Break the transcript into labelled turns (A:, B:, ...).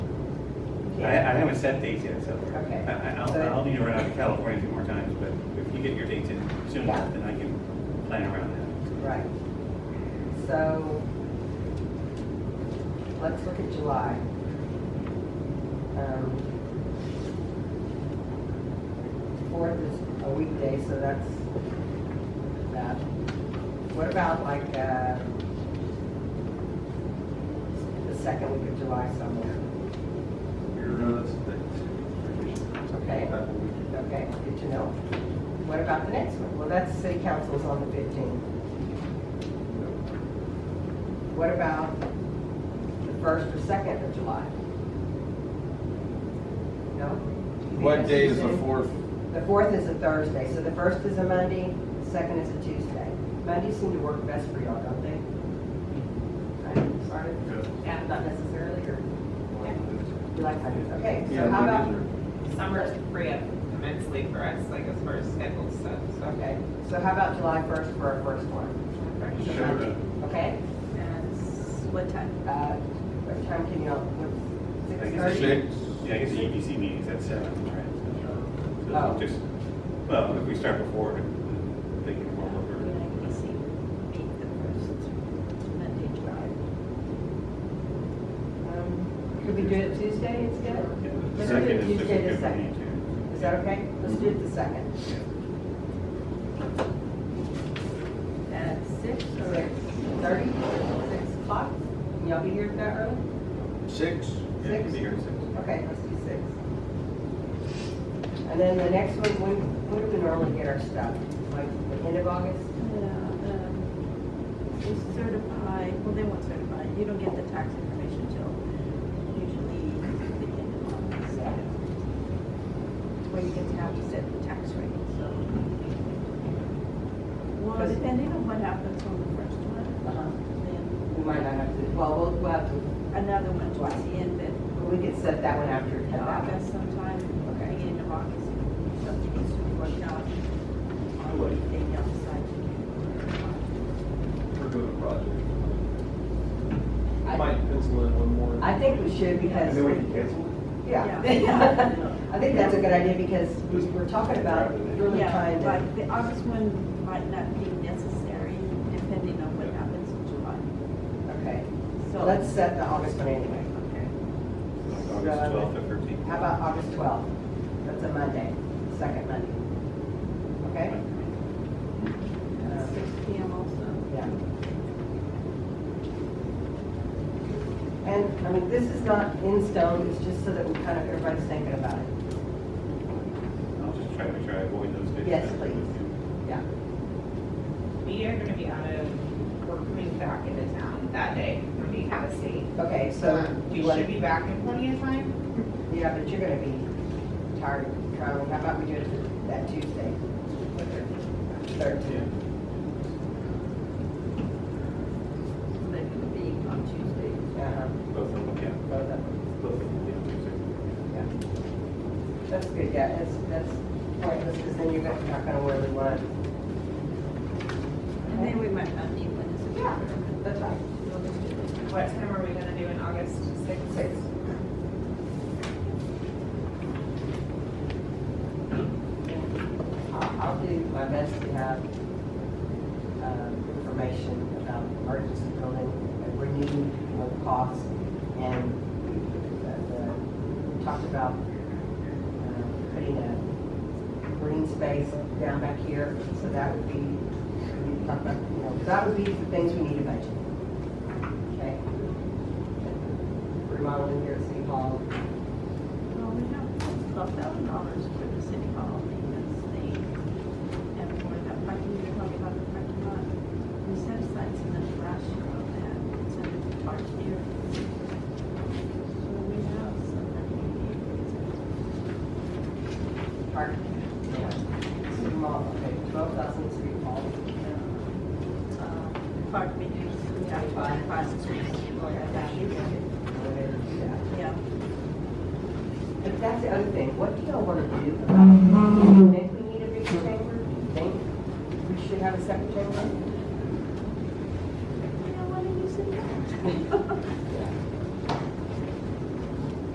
A: I, I haven't set dates yet, so.
B: Okay.
A: I, I- I'll, I'll need to run out to California a few more times, but if you get your dates in soon enough, then I can plan around that.
B: Right. So, let's look at July. Um, Fourth is a weekday, so that's that. What about like, uh, the second week of July somewhere? Okay. Okay, good to know. What about the next one? Well, that's city council's on the fifteenth. What about the first or second of July? No?
C: What day is the fourth?
B: The fourth is a Thursday, so the first is a Monday, the second is a Tuesday. Mondays seem to work best for y'all, don't they?
D: I'm sorry, yeah, not necessarily, or
B: You like Mondays, okay,
C: Yeah,
B: so how about,
D: summer's free up immensely for us, like as far as scheduled stuff, so.
B: okay, so how about July first for our first one?
A: Sure.
B: Okay?
D: What time?
B: Uh, What time can y'all, what,
A: I
B: six
A: guess
B: thirty?
C: Six.
A: Yeah, I guess the EPC meeting's at seven, right? So
B: Oh.
A: just- Well, if we start before, they can warm up or.
B: Um, Could we do it Tuesday instead?
A: The
B: Let's do
A: second
B: it
A: is just
B: Tuesday
A: a
B: the
A: good meeting
B: second.
A: too.
B: Is that okay? Let's do it the second.
D: At six
B: Six thirty, six o'clock? Can y'all be here that early?
C: Six.
A: Yeah, it could
B: Six?
A: be here at six.
B: Okay, let's do six. And then the next one, when, when do we normally get our stuff? Like the end of August?
E: Is um, certified, well, they won't certify, you don't get the tax information till usually the end of August.
B: Yeah.
E: Where you get to have to set the tax rate, so. Well, depending on what happens on the first one,
B: Uh-huh.
E: then
B: We might not have to, well, we'll, we'll have to,
E: another one towards the end, but
B: we could set that one after
E: in
B: the August.
E: August sometime,
B: Okay.
E: beginning of August, something needs to be worked out. On what they decide to do.
C: We're doing a project.
B: I,
C: Might pencil in one more.
B: I think we should because. Yeah.
E: Yeah.
B: I think that's a good idea because we we're talking about really
E: Yeah,
B: trying
E: like
B: to,
E: the August one might not be necessary depending on what happens in July.
B: okay. So
E: So-
B: let's set the August one anyway.
A: Like
B: So,
A: August twelfth or thirteenth.
B: How about August twelfth? That's a Monday, second Monday. Okay? Um,
E: Uh, Six P M also.
B: Yeah. And, I mean, this is not in stone, it's just so that we kind of, everybody's thinking about it.
A: I'll just try to make sure I avoid those days.
B: Yes, please. Yeah.
D: We are gonna be out of, we're coming back into town that day, we're being out of state.
B: Okay, so.
D: Um,
B: you
D: We
B: wanna-
D: should be back in plenty of time.
B: Yeah, but you're gonna be tired of traveling. How about we do it that Tuesday? Thirteenth.
E: That could be on Tuesday.
B: Uh-huh.
A: Both of them, yeah.
B: Both of them.
A: Both of them,
B: Yeah. That's good, yeah, that's, that's pointless, because then you're gonna- not gonna really want.
E: And then we might not need one as a.
D: Yeah.
B: That's right.
D: What time are we gonna do in August? Six?
B: Six. I'll, I'll do my best to have, um, information about the emergency building, and renewed uh, costs, and the- the- we talked about uh, putting a green space down back here, so that would be, we talked about, you know, that would be the things we need to budget. Okay? Remodeling here at City Hall,
E: Well, we have twelve thousand dollars for the city hall maintenance thing. And for that parking, you're talking about the parking lot. We set aside some of the last year on that, it's under the park here. So we have some money.
B: park, City Hall, okay, twelve thousand City Hall.
E: uh, uh, Park meters, we have five, five, six, or that.
B: we're gonna do that.
E: Yeah.
B: But that's the other thing, what do y'all wanna do about, do you think we need a bigger chamber? Do you think we should have a second chamber?
E: You don't want to use it.